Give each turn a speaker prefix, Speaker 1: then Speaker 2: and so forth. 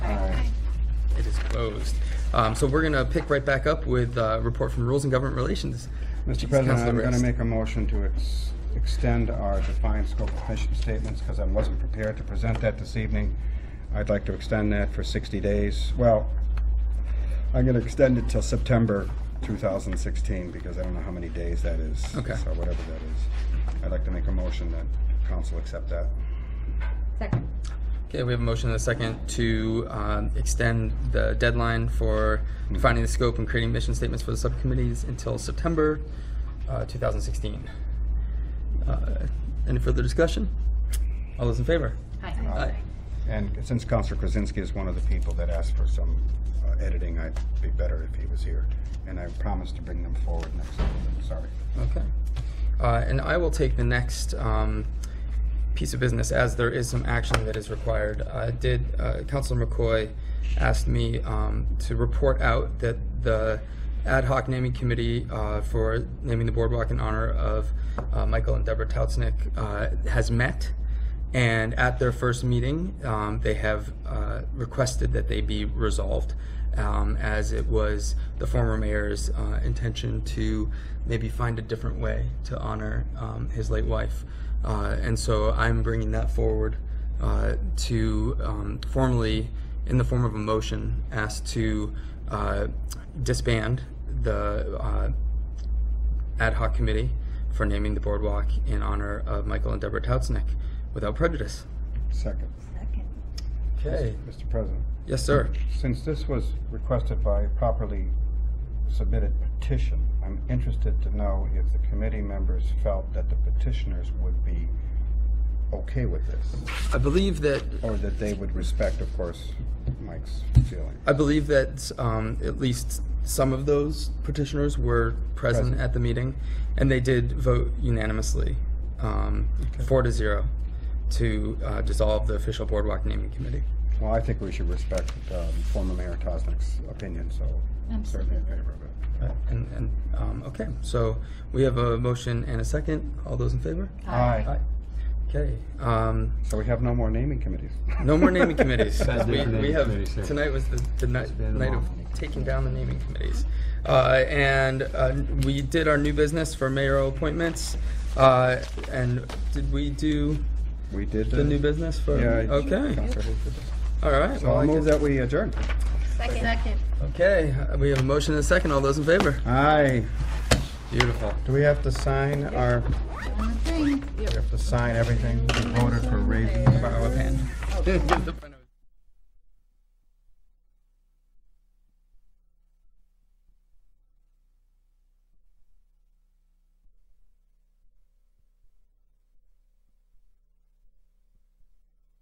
Speaker 1: Opposed. Um, So we're going to pick right back up with uh, report from Rules and Government Relations.
Speaker 2: Mr. President,
Speaker 1: Councilor
Speaker 2: I'm going to
Speaker 1: Rist.
Speaker 2: make a motion to ex- extend our defined scope of mission statements because I wasn't prepared to present that this evening. I'd like to extend that for 60 days. Well, I'm going to extend it till September 2016 because I don't know how many days that is.
Speaker 1: Okay.
Speaker 2: So whatever that is. I'd like to make a motion that council accept that.
Speaker 3: Second.
Speaker 1: Okay, we have a motion and a second to um, extend the deadline for defining the scope and creating mission statements for the subcommittees until September uh, 2016. Uh, Any further discussion? All those in favor?
Speaker 3: Hi.
Speaker 1: Aye.
Speaker 2: And since Counselor Krasinski is one of the people that asked for some uh, editing, I'd be better if he was here. And I promise to bring them forward next time. Sorry.
Speaker 1: Okay. Uh, And I will take the next um, piece of business, as there is some action that is required. I did, uh, Councilor McCoy asked me um, to report out that the ad hoc naming committee uh, for naming the boardwalk in honor of uh, Michael and Deborah Tautznick uh, has met. And at their first meeting, um, they have uh, requested that they be resolved, um, as it was the former mayor's uh, intention to maybe find a different way to honor um, his late wife. Uh, and so I'm bringing that forward uh, to um, formally, in the form of a motion, ask to uh, disband the uh, ad hoc committee for naming the boardwalk in honor of Michael and Deborah Tautznick without prejudice.
Speaker 2: Second.
Speaker 3: Second.
Speaker 1: Okay.
Speaker 2: Mr. President,
Speaker 1: Yes, sir.
Speaker 2: since this was requested by a properly submitted petition, I'm interested to know if the committee members felt that the petitioners would be okay with this,
Speaker 1: I believe that
Speaker 2: or that they would respect, of course, Mike's feeling.
Speaker 1: I believe that um, at least some of those petitioners were present,
Speaker 2: Present.
Speaker 1: at the meeting, and they did vote unanimously, um, four to zero, to uh, dissolve the official boardwalk naming committee.
Speaker 2: Well, I think we should respect um, former Mayor Tosnick's opinion, so I'm certainly in favor of it.
Speaker 1: And, and um, okay, so we have a motion and a second. All those in favor?
Speaker 2: Aye.
Speaker 1: Okay. Um,
Speaker 2: So we have no more naming committees.
Speaker 1: No more naming committees.
Speaker 4: Bad
Speaker 1: we,
Speaker 4: naming
Speaker 1: we have
Speaker 4: committees, yeah.
Speaker 1: tonight was the, the night,
Speaker 4: been
Speaker 1: night of
Speaker 4: long.
Speaker 1: taking down the naming committees, uh, and uh, we did our new business for mayoral appointments. Uh, and did we do
Speaker 2: We did
Speaker 1: the new business for?
Speaker 2: Yeah. I-
Speaker 1: Okay.
Speaker 2: Counselor Hayes did that.
Speaker 1: All right.
Speaker 2: So
Speaker 1: well, I
Speaker 2: I'll move
Speaker 1: guess-
Speaker 2: that we adjourn.
Speaker 3: Second.
Speaker 1: Okay. uh, We have a motion and a second. All those in favor?
Speaker 2: Aye.
Speaker 1: Beautiful.
Speaker 2: Do we have to sign our,
Speaker 3: One thing.
Speaker 2: we have to sign everything? We voted for raising the
Speaker 1: Borrow a pen.